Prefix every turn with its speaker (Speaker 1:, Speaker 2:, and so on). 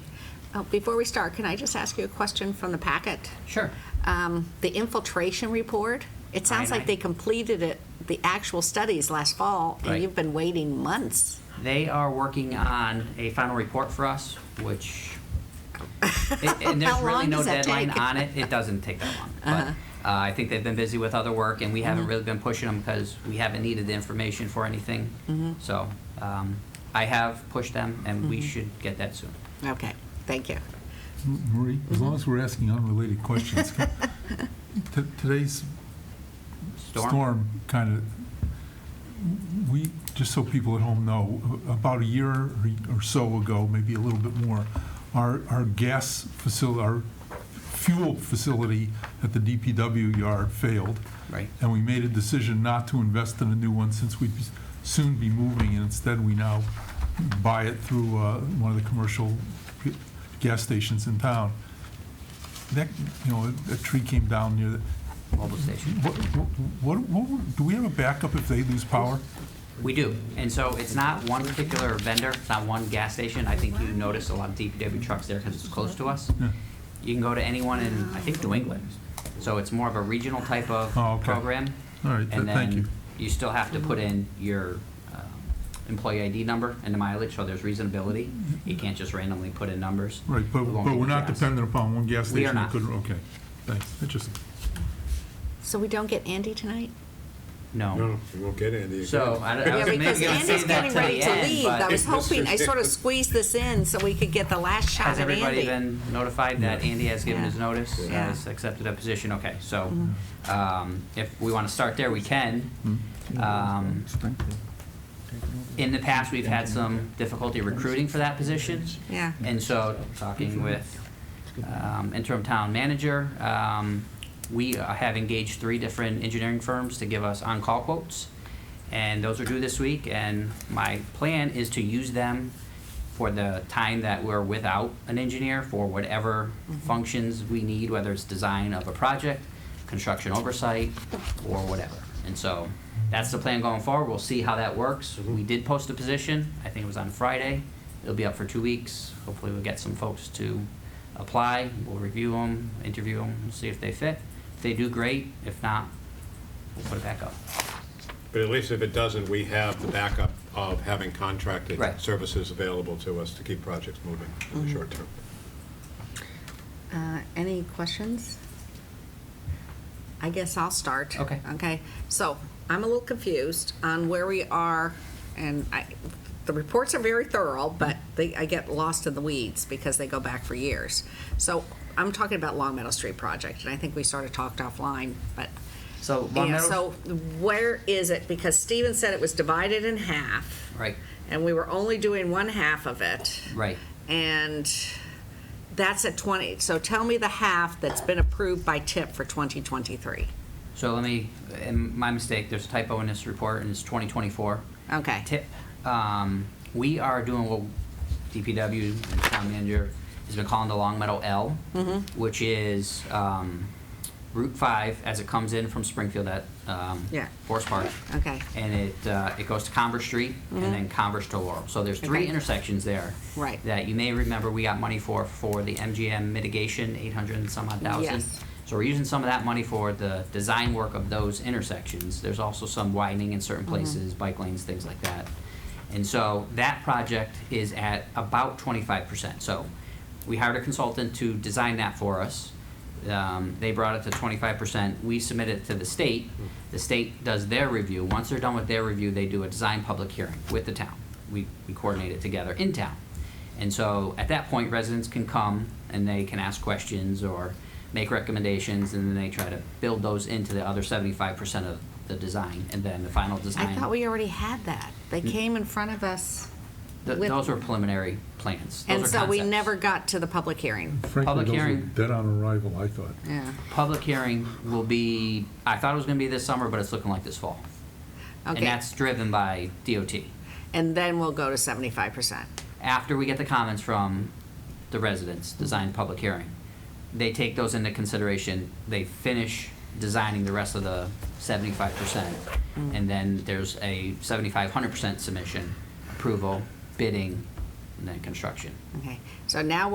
Speaker 1: Oh, Before we start, can I just ask you a question from the packet?
Speaker 2: Sure.
Speaker 1: Um, The infiltration report, it sounds like
Speaker 2: Cyanide.
Speaker 1: they completed it, the actual studies last fall, and
Speaker 2: Right.
Speaker 1: you've been waiting months.
Speaker 2: They are working on a final report for us, which, and- and there's
Speaker 1: How
Speaker 2: really
Speaker 1: long
Speaker 2: no
Speaker 1: does that
Speaker 2: deadline
Speaker 1: take? Uh-huh.
Speaker 2: on it. It doesn't take that long. But uh, I think they've been busy with other work, and we
Speaker 1: Mm-hmm.
Speaker 2: haven't really been pushing them because we haven't needed the information for
Speaker 1: Mm-hmm.
Speaker 2: anything. So um, I have pushed them, and we should get that soon.
Speaker 1: Okay, thank you.
Speaker 3: Marie, as long as we're asking unrelated questions, t- today's storm kind of, we, just so people at home know, a- about a year or- or so ago, maybe a little bit more, our, our gas facility, our fuel facility at the DPW yard failed.
Speaker 2: Right.
Speaker 3: And we made a decision not to invest in a new one since we'd soon be moving, and instead we now buy it through uh, one of the commercial g- gas stations in town. That, you know, a a tree came down near the,
Speaker 2: Mobile station.
Speaker 3: what, what, what, would- do we have a backup if they lose power?
Speaker 2: We do, and so it's not one particular vendor, it's not one gas station, I think you notice a lot of DPW trucks there because it's close to us.
Speaker 3: Yeah.
Speaker 2: You can go to anyone in, I think, New England, so it's more of a regional type of
Speaker 3: Oh, okay.
Speaker 2: program.
Speaker 3: All right, th- thank
Speaker 2: And
Speaker 3: you.
Speaker 2: then you still have to put in your um, employee ID number and the mileage, so there's reasonability, you can't just randomly put in numbers.
Speaker 3: Right, but,
Speaker 2: Along
Speaker 3: but we're
Speaker 2: with
Speaker 3: not
Speaker 2: gas.
Speaker 3: dependent upon one gas
Speaker 2: We are
Speaker 3: station that
Speaker 2: not.
Speaker 3: couldn't, okay, thanks, interesting.
Speaker 1: So we don't get Andy tonight?
Speaker 2: No,
Speaker 4: No, we won't get Andy again.
Speaker 2: so I I
Speaker 1: Yeah,
Speaker 2: was maybe gonna
Speaker 1: because
Speaker 2: save
Speaker 1: Andy's
Speaker 2: that
Speaker 1: getting
Speaker 2: till
Speaker 1: ready
Speaker 2: the
Speaker 1: to
Speaker 2: end,
Speaker 1: leave. I
Speaker 2: but
Speaker 1: was hoping, I sort of squeezed this in so we could get the last shot
Speaker 2: Has
Speaker 1: at
Speaker 2: everybody
Speaker 1: Andy.
Speaker 2: been notified that Andy has given his
Speaker 1: Yeah.
Speaker 2: notice,
Speaker 1: Yeah. Mm-hmm. Yeah.
Speaker 2: has accepted a position? Okay, so um, if we want to start there, we can.
Speaker 3: Hmm. Mm-hmm.
Speaker 2: Um, In the past, we've had some difficulty recruiting for that position.
Speaker 1: Yeah.
Speaker 2: And so, talking with um, interim town manager, um, we uh, have engaged three different engineering firms to give us on-call quotes. And those are due this week, and my plan is to use them for the time that we're without an engineer for whatever functions we need, whether it's design of a project, construction oversight, or whatever. And so, that's the plan going forward. We'll see how that works. We did post a position. I think it was on Friday. It'll be up for two weeks. Hopefully, we'll get some folks to apply. We'll review them, interview them, see if they fit. If they do, great. If not, we'll put it back up.
Speaker 4: But at least if it doesn't, we have the backup of having contracted
Speaker 2: Right.
Speaker 4: services available to us to keep projects moving in
Speaker 1: Mm-hmm.
Speaker 4: the short term.
Speaker 1: Uh, Any questions? I guess I'll start.
Speaker 2: Okay.
Speaker 1: Okay, so I'm a little confused on where we are, and I, the reports are very thorough, but they, I get lost in the weeds because they go back for years. So I'm talking about Long Meadow Street project, and I think we sort of talked offline, but.
Speaker 2: So, Long
Speaker 1: Yeah,
Speaker 2: Meadow-
Speaker 1: so where is it? Because Steven said it was divided in half.
Speaker 2: Right.
Speaker 1: And we were only doing one half of it.
Speaker 2: Right.
Speaker 1: And that's at 20, so tell me the half that's been approved by TIP for 2023.
Speaker 2: So let me, and my mistake, there's a typo in this report, and it's 2024.
Speaker 1: Okay.
Speaker 2: Tip, um, we are doing what DPW, and town manager, has been calling the Long Meadow L,
Speaker 1: Mm-hmm.
Speaker 2: which is um, Route 5 as it comes in from Springfield at um,
Speaker 1: Yeah.
Speaker 2: Forest Park.
Speaker 1: Okay. Mm-hmm.
Speaker 2: And it, uh, it goes to Converse Street and then Converse to Laurel. So there's three
Speaker 1: Okay.
Speaker 2: intersections there.
Speaker 1: Right.
Speaker 2: That you may remember we got money for, for the MGM mitigation, 800 and some odd thousand.
Speaker 1: Yes.
Speaker 2: So we're using some of that money for the design work of those intersections. There's also some widening in certain places, bike lanes, things like that. And so that project is at about twenty-five percent. So we hired a consultant to design that for us. Um, they brought it to twenty-five percent. We submit it to the state. The state does their review. Once they're done with their review, they do a design public hearing with the town. We, we coordinate it together in town. And so at that point, residents can come and they can ask questions or make recommendations, and then they try to build those into the other seventy-five percent of the design, and then the final design.
Speaker 1: I thought we already had that. They came in front of us
Speaker 2: Mm. Th-
Speaker 1: with-
Speaker 2: Those were preliminary plans. Those
Speaker 1: And
Speaker 2: are
Speaker 1: so we
Speaker 2: concepts.
Speaker 1: never got to the public hearing.
Speaker 3: Frankly,
Speaker 2: Public
Speaker 3: those were
Speaker 2: hearing.
Speaker 3: dead on arrival, I thought.
Speaker 2: Mm.
Speaker 1: Yeah,
Speaker 2: Public hearing will be, I thought it was gonna be this summer, but it's looking like this fall. And
Speaker 1: okay.
Speaker 2: that's driven by DOT.
Speaker 1: And then we'll go to 75%.
Speaker 2: After we get the comments from the residents, design public hearing, they take those into consideration, they finish designing the rest of the seventy-five percent. And then there's a seventy-five, hundred percent submission, approval, bidding, and then construction.
Speaker 1: Okay, so now